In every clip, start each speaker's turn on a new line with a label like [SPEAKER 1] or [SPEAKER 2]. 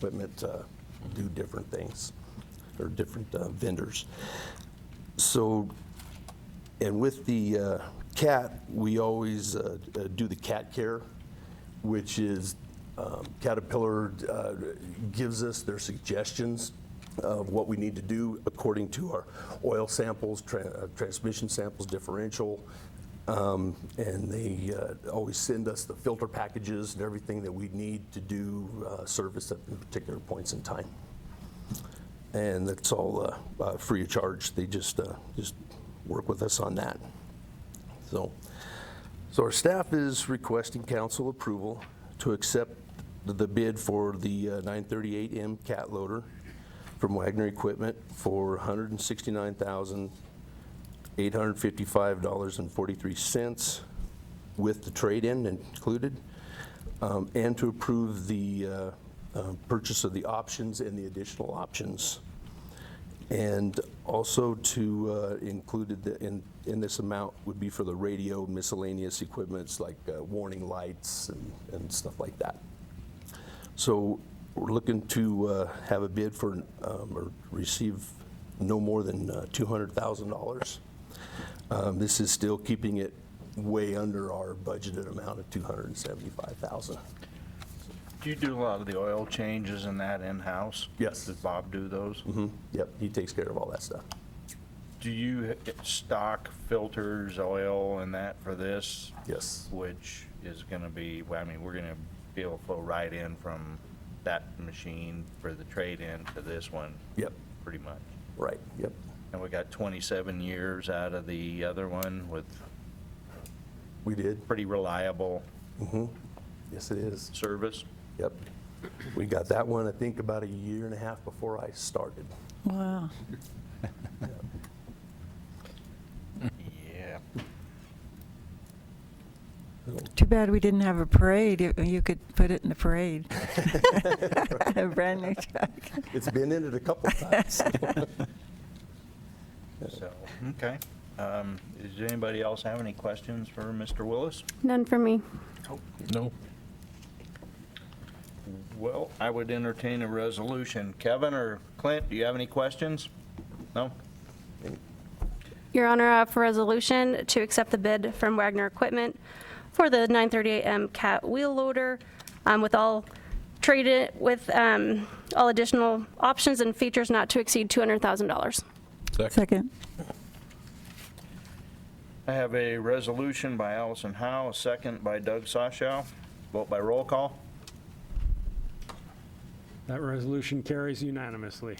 [SPEAKER 1] equipment uh, do different things, or different uh, vendors. So, and with the uh, cat, we always uh, uh, do the cat care, which is um, Caterpillar uh, gives us their suggestions of what we need to do according to our oil samples, tran- uh, transmission samples, differential. Um, And they uh, always send us the filter packages and everything that we need to do uh, service at particular points in time. And that's all uh, uh, free of charge. They just, uh, just work with us on that. So, so our staff is requesting council approval to accept the bid for the uh, 938M cat loader from Wagner Equipment for $169,855.43 with the trade-in included, um, and to approve the uh, uh, purchase of the options and the additional options. And also to uh, included the- in, in this amount would be for the radio miscellaneous equipments like uh, warning lights and, and stuff like that. So we're looking to uh, have a bid for, um, or receive no more than uh, $200,000. Um, This is still keeping it way under our budgeted amount of 275,000.
[SPEAKER 2] Do you do a lot of the oil changes and that in-house?
[SPEAKER 1] Yes. Mm-hmm.
[SPEAKER 2] Does Bob do those?
[SPEAKER 1] Yep, he takes care of all that stuff.
[SPEAKER 2] Do you h- stock filters, oil and that for this?
[SPEAKER 1] Yes.
[SPEAKER 2] Which is gonna be, well, I mean, we're gonna be able to flow right in from that machine for the trade-in to this one?
[SPEAKER 1] Yep.
[SPEAKER 2] Pretty much.
[SPEAKER 1] Right, yep.
[SPEAKER 2] And we got 27 years out of the other one with
[SPEAKER 1] We did.
[SPEAKER 2] pretty reliable
[SPEAKER 1] Yes, it is.
[SPEAKER 2] service?
[SPEAKER 1] Yep. We got that one, I think, about a year and a half before I started.
[SPEAKER 3] Wow.
[SPEAKER 2] Yeah.
[SPEAKER 3] Too bad we didn't have a parade. It- You could put it in the parade. A brand new truck.
[SPEAKER 1] It's been in it a couple of times.
[SPEAKER 2] So, okay. Um, Does anybody else have any questions for Mr. Willis?
[SPEAKER 4] None for me.
[SPEAKER 5] No.
[SPEAKER 2] Well, I would entertain a resolution. Kevin or Clint, do you have any questions? No?
[SPEAKER 4] Your Honor, uh, for resolution to accept the bid from Wagner Equipment for the 938M Cat wheel loader um, with all traded, with um, all additional options and features not to exceed $200,000.
[SPEAKER 3] Second.
[SPEAKER 2] I have a resolution by Allison Howe, a second by Doug Sashow. Vote by roll call.
[SPEAKER 6] That resolution carries unanimously.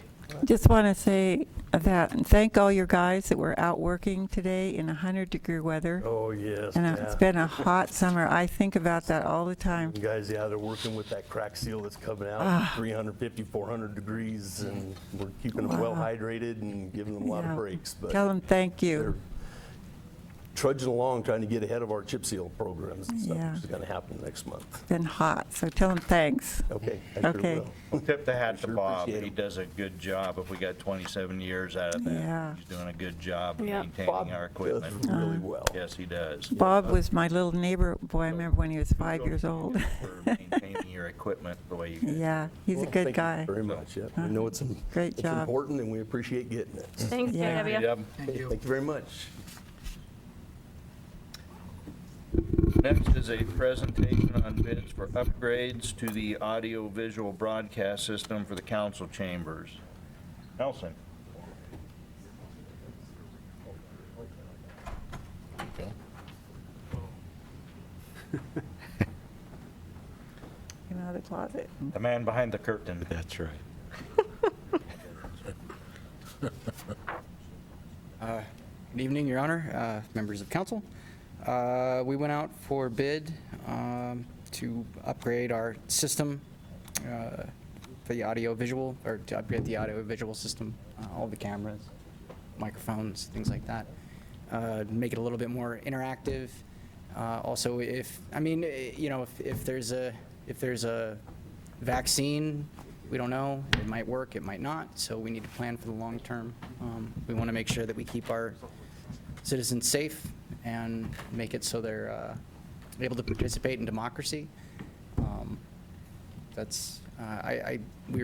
[SPEAKER 3] Just want to say that, and thank all your guys that were out working today in 100-degree weather.
[SPEAKER 1] Oh, yes.
[SPEAKER 3] And uh, it's been a hot summer. I think about that all the time.
[SPEAKER 1] You guys, yeah, they're working with that crack seal that's coming
[SPEAKER 3] Ah.
[SPEAKER 1] out, 350, 400 degrees, and we're keeping them well
[SPEAKER 3] Wow.
[SPEAKER 1] hydrated and giving them a lot of
[SPEAKER 3] Yeah.
[SPEAKER 1] breaks,
[SPEAKER 3] Tell
[SPEAKER 1] but
[SPEAKER 3] them thank
[SPEAKER 1] they're
[SPEAKER 3] you.
[SPEAKER 1] trudging along, trying to get ahead of our chip seal programs and stuff,
[SPEAKER 3] Yeah.
[SPEAKER 1] which is going to happen next month.
[SPEAKER 3] Been hot, so tell them thanks.
[SPEAKER 1] Okay, I sure
[SPEAKER 3] Okay.
[SPEAKER 1] will.
[SPEAKER 2] Tip the hat to
[SPEAKER 1] Sure
[SPEAKER 2] Bob.
[SPEAKER 1] appreciate
[SPEAKER 2] He
[SPEAKER 1] him.
[SPEAKER 2] does a good job. If we got 27 years out of
[SPEAKER 3] Yeah.
[SPEAKER 2] that, he's doing a good job of
[SPEAKER 4] Yeah.
[SPEAKER 1] Bob
[SPEAKER 2] maintaining
[SPEAKER 1] does
[SPEAKER 2] our equipment.
[SPEAKER 1] really well.
[SPEAKER 2] Yes, he does.
[SPEAKER 3] Bob
[SPEAKER 1] uh,
[SPEAKER 3] was my little neighbor, boy, I remember when he was five years old.
[SPEAKER 2] For maintaining your equipment the way you do.
[SPEAKER 3] Yeah, he's a
[SPEAKER 1] Well,
[SPEAKER 3] good
[SPEAKER 1] thank you
[SPEAKER 3] guy.
[SPEAKER 1] Very much, yeah. We know it's im-
[SPEAKER 3] Great
[SPEAKER 1] it's
[SPEAKER 3] job.
[SPEAKER 1] important, and we appreciate getting it.
[SPEAKER 4] Thanks,
[SPEAKER 3] Yeah.
[SPEAKER 4] KW.
[SPEAKER 2] Yep.
[SPEAKER 1] Thank you very much.
[SPEAKER 2] Next is a presentation on bids for upgrades to the audio-visual broadcast system for the council chambers. Nelson?
[SPEAKER 3] Came out of the closet.
[SPEAKER 2] The man behind the curtain.
[SPEAKER 5] That's right.
[SPEAKER 7] Good evening, Your Honor, uh, members of council. Uh, We went out for bid um, to upgrade our system uh, for the audio-visual, or to upgrade the audio-visual system, uh, all the cameras, microphones, things like that. Uh, Make it a little bit more interactive. Uh, Also, if, I mean, eh, you know, if- if there's a, if there's a vaccine, we don't know. It might work, it might not, so we need to plan for the long term. Um, We want to make sure that we keep our citizens safe and make it so they're uh, able to participate in democracy. Um, That's, I- Uh, I, I, we